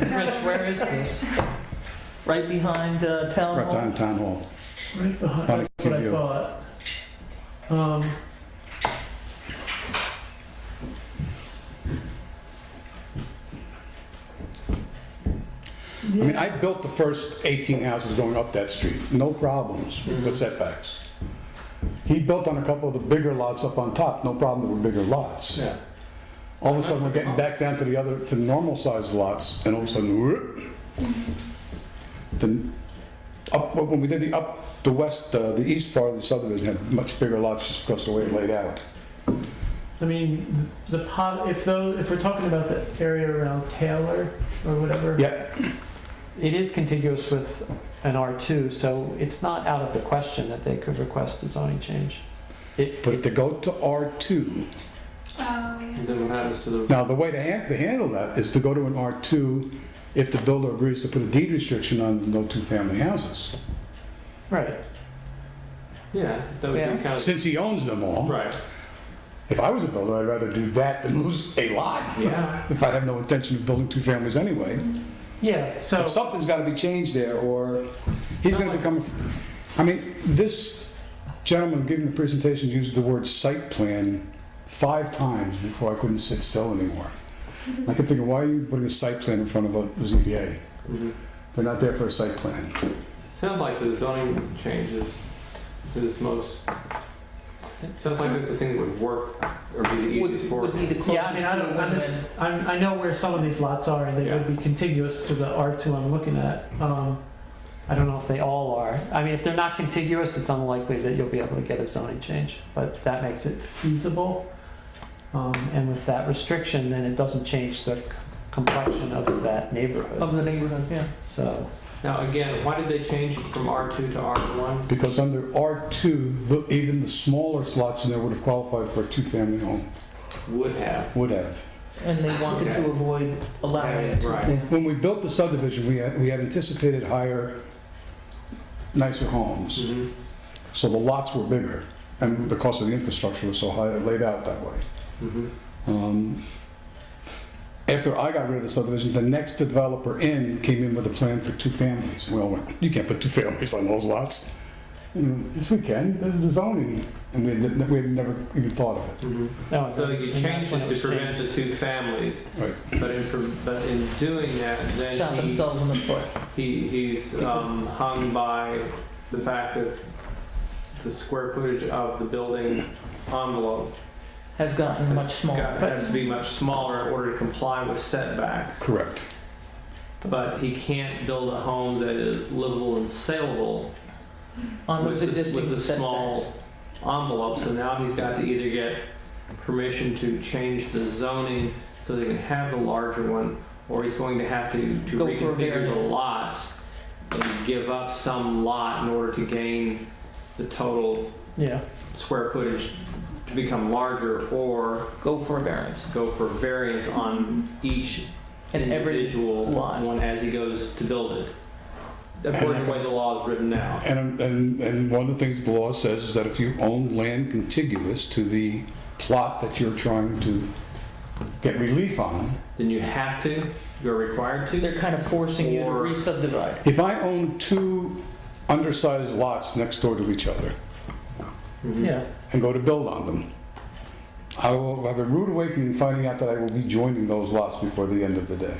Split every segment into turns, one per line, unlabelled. Rich, where is this? Right behind uh, Town
Right
Hall?
behind Town Hall.
Right behind,
Not a
that's what I
cute view.
thought. Um,
I mean, I built the first 18 houses going up that street, no problems with setbacks. He built on a couple of the bigger lots up on top, no problem with bigger lots.
Yeah.
All of a sudden, we're getting back down to the other, to normal sized lots, and all of a sudden, whoop. Then, up, when we did the up, the west, uh, the east part of the subdivision had much bigger lots just because of the way it laid out.
I mean, the pot, if though, if we're talking about the area around Taylor or whatever.
Yeah,
It is contiguous with an R2, so it's not out of the question that they could request a zoning change. It,
but
it-
to go to R2,
Oh,
Um,
And then what happens to the,
Now, the way to han- to handle that is to go to an R2 if the builder agrees to put a deed restriction on no two-family houses.
right,
yeah, that would
Yeah.
be kind of,
Since he owns them all,
right,
if I was a builder, I'd rather do that than lose a lot.
yeah.
If I have no intention of building two families anyway.
Yeah, so,
But something's got to be changed there, or he's going to become, I mean, this gentleman giving the presentation used the word site plan five times before I couldn't sit still anymore. I kept thinking, why are you putting a site plan in front of a ZBA?
Mhm.
They're not there for a site plan.
Sounds like the zoning change is, is most, it sounds like it's the thing that would work or be the
would
easiest for.
would be the closest.
yeah, I mean, I
to
don't,
a
I'm
win-win.
just, I'm, I know where some of these lots are and they would be contiguous to the R2 I'm looking at. Um,
I don't know if they all are. I mean, if they're not contiguous, it's unlikely that you'll be able to get a zoning change, but that makes it feasible. Um, And with that restriction, then it doesn't change the complexion of that neighborhood,
the neighborhood, yeah.
so.
Now, again, why did they change it from R2 to R1?
Because under R2, the- even the smaller slots in there would have qualified for a two-family home,
Would have.
would have.
And they
wanted to Okay.
avoid
allowing it to- Right.
When we built the subdivision, we had, we had anticipated higher, nicer homes,
Mhm.
so the lots were bigger, and the cost of the infrastructure was so high, it laid out that way.
Mhm.
Um, After I got rid of the subdivision, the next developer in came in with a plan for two families. We all went, you can't put two families on those lots. And, Yes, we can, this is the zoning, and we had, we had never even thought of it.
Mhm. So you changed it to prevent the two families,
Right.
but in, pre- but in doing that, then he
in the foot.
He, he's um, hung by the fact that the square footage of the building envelope
Has gotten
much got- has to
But
be much smaller in order to comply with setbacks.
Correct.
But he can't build a home that is livable and saleable
on
with, the, with the small envelope. So now he's got to either get permission to change the zoning so they can have the larger one, or he's going to have to, to
Go for a
reconfigure the
variance.
lots and give up some lot in order to gain the total
Yeah,
square footage to become larger, or
go for a variance.
go for variance on each
And every
individual
lot.
one as he goes to build it. According to the way the law is written now.
And, and, and one of the things the law says is that if you own land contiguous to the plot that you're trying to get relief on,
then you have to, you're required to.
They're kind of forcing
you to Or-
re-subdivide.
if I own two undersized lots next door to each other,
Mhm.
Yeah,
and go to build on them. I will have a rude awakening finding out that I will be joining those lots before the end of the day.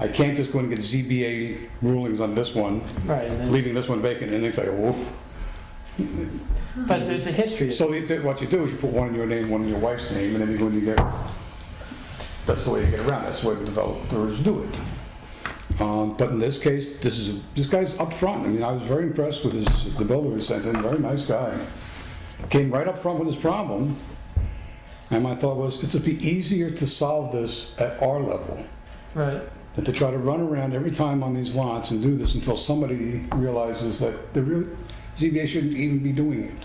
I can't just go and get ZBA rulings on this one,
right, and then-
leaving this one vacant, and it's like, woof.
but there's a history.
So you do- what you do is you put one in your name, one in your wife's name, and then you go and you get, that's the way you get around, that's the way the developers do it. Um, But in this case, this is, this guy's upfront, I mean, I was very impressed with his, the builder he sent in, very nice guy. Came right up front with his problem, and my thought was, it'd be easier to solve this at our level
Right.
than to try to run around every time on these lots and do this until somebody realizes that the real, ZBA shouldn't even be doing it.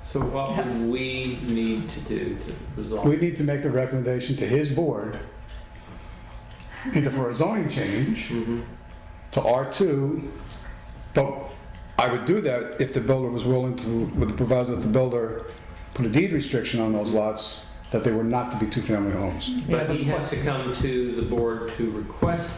So what would we need to do to resolve?
We need to make a recommendation to his board, either for a zoning change
Mhm.
to R2, but I would do that if the builder was willing to, with the proviso that the builder put a deed restriction on those lots
that they were not to be two-family homes.
Yeah,
But he
but-
has to come to the board to request